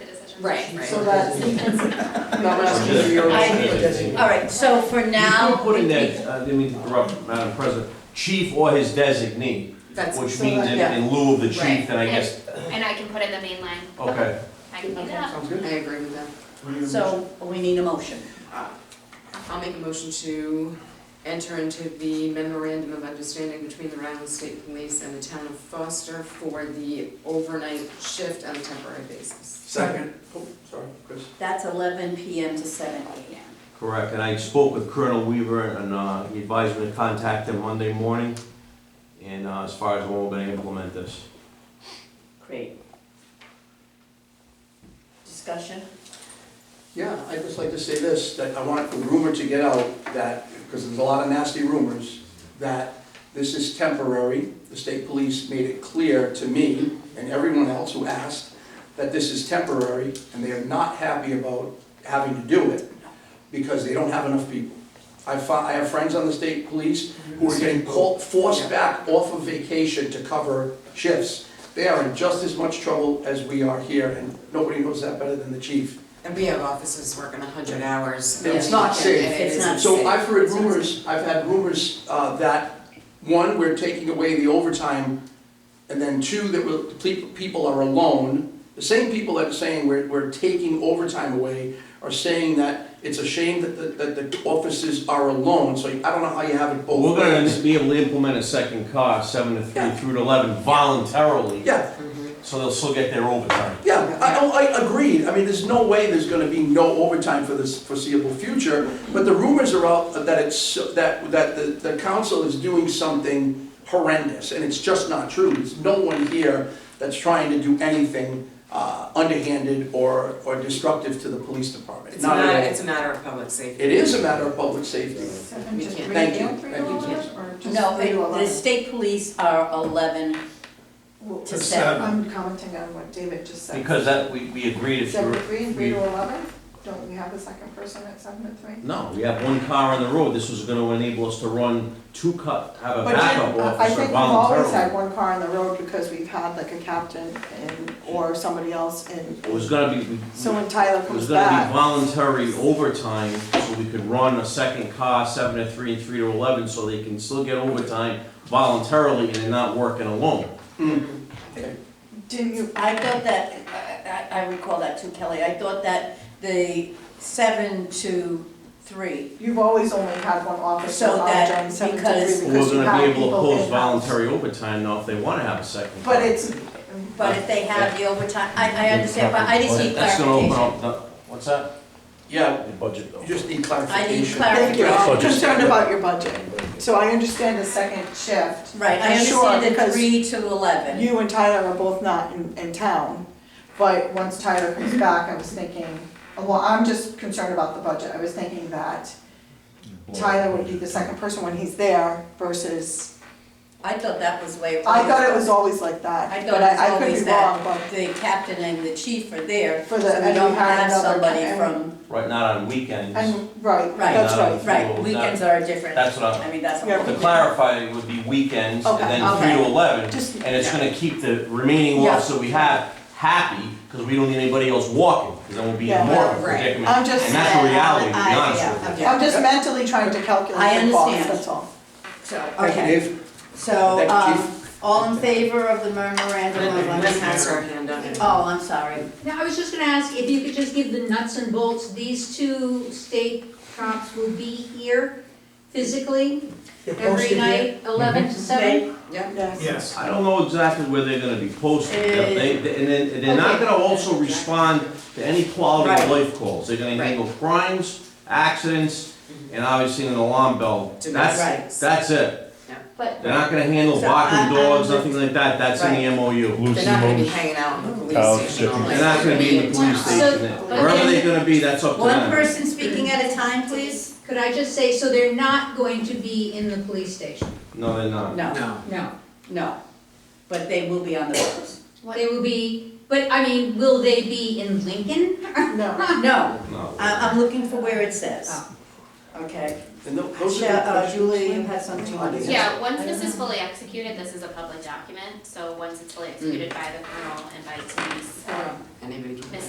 questions. Right, right. So that's, Not asking for your I- All right, so for now. You keep putting that, uh, I didn't mean to interrupt, Madam President, chief or his designee, That's, which so means that- in- yeah. in lieu of the Right. chief, and I guess, And I can put in the main line. okay. I can clean it up. Sounds good. I agree with that. so we need a motion. I'll make a motion to enter into the memorandum of understanding between the Rhode Island State Police and the town of Foster for the overnight shift on a temporary basis. Second. Oh, sorry, Chris. That's eleven PM to seven AM. Correct, and I spoke with Colonel Weaver, and uh, he advised me to contact him Monday morning, and uh, as far as when we're gonna implement this. Great. Discussion? Yeah, I'd just like to say this, that I want the rumor to get out that, because there's a lot of nasty rumors, that this is temporary. The state police made it clear to me and everyone else who asked that this is temporary and they are not happy about having to do it because they don't have enough people. I fi- I have friends on the state police who are getting called, forced back off of vacation to cover shifts. They are in just as much trouble as we are here and nobody knows that better than the chief. And we have officers working hundred hours. Yeah, it's not safe. And it It's isn't not safe. So I've heard It's not safe. rumors, I've had rumors uh, that, one, we're taking away the overtime, and then two, that we'll- the pe- people are alone. The same people that are saying we're, we're taking overtime away are saying that it's a shame that the, that the officers are alone, so I don't know how you have it We're both gonna ways. be able to implement a second car, seven to three Yeah. through to eleven voluntarily, Yeah, so they'll still get their overtime. Yeah, I, oh, I agreed, I mean, there's no way there's gonna be no overtime for this foreseeable future, but the rumors are out that it's, that, that the, the council is doing something horrendous, and it's just not true, there's no one here that's trying to do anything, uh, underhanded or, or destructive to the police department, It's not not, at all. it's a matter of public safety. It is a matter of public safety, We Just can't. read Thank you. down three Thank you, dollars or just No, three it- the dollars? state police are eleven, Well, to seven. I'm commenting on what David just said. Because that, we, we agreed if Seven you're. to three and three we- to eleven, don't we have the second person at seven to three? No, we have one car on the road, this was gonna enable us to run two car, have a But backup Jim, I officer think we've always had voluntarily. one car on the road because we've had like a captain and, or somebody else and. It was gonna be, we- So when Tyler it was comes gonna be back, voluntary overtime, so we could run a second car, seven to three and three to eleven, so they can still get overtime voluntarily and they're not working alone. didn't you, I thought that, I, I I recall that too, Kelly, I thought that the seven to three, you've always only had one officer So on that- during seven to because- three We're because you gonna have be able to people post in house. voluntary overtime now if they wanna have a second. But car. it's, but if they have the overtime, I, I understand, but I just need That's gonna open clarification. up, the- what's that? yeah, The budget bill. you just need I clarification. need thank you, clarification. I'm concerned about your budget. So I understand the second shift. Right, I I'm sure, understand the because three to eleven. You and Tyler are both not in, in town, but once Tyler comes back, I was thinking, well, I'm just concerned about the budget, I was thinking that Tyler would be the second person when he's there versus, I thought that was the way. I thought it was all. always like I that, thought but it was I, I could always be wrong, that but the captain and the chief are there, so For we the- and don't we had have another somebody captain. from, Right, not on weekends. and, right, Right. that's Not right. right, Well, weekends are different. That's what I'm- I mean, that's. Yeah. To clarify, it would be weekends, and Okay, then three to okay. eleven, Just- and it's gonna keep the remaining Yeah. officer we have happy, because we don't need anybody else walking, because then we'll be Yeah, in more of a right. predicament. I'm just And that's the saying, reality, to be I- honest yeah, with you. yeah. I'm just mentally trying to I calculate the cost, understand. that's all. So, Thank you, okay, Dave. so, Thank you, um, all in favor of the memorandum And of then let's pass our understanding? hand on it. Oh, I'm sorry, Now, I was just gonna ask if you could just give the nuts and bolts, these two state cops will be here physically every night, eleven to seven? Yes. I don't know exactly where they're gonna be posted, They're- they, they- and then, they're not Okay. gonna also respond to any quality of Right. life calls, they're gonna Right. handle crimes, accidents, and obviously an alarm bell, Right. that's, that's it. But, They're not gonna handle So barking I- dogs, I'm- nothing like that, that's in the MOU. They're not gonna be hanging out in the Couch police station all night. sitting. They're not gonna be in the police So- station, wherever they're gonna be, that's up to one them. person speaking at a time, please? could I just say, so they're not going to be in the police station? No, they're not. No, No. No. no, but they will be on the roads. They will be, but I mean, will they be in Lincoln? No, No, No. I, I'm looking for where it says. Okay, And tho- those are Ju- good uh, questions. Julie, you had something you wanted to say? Yeah, once this is fully executed, this is a public document, so once it's fully executed by the colonel and by Denise, um, Anybody can. Mrs.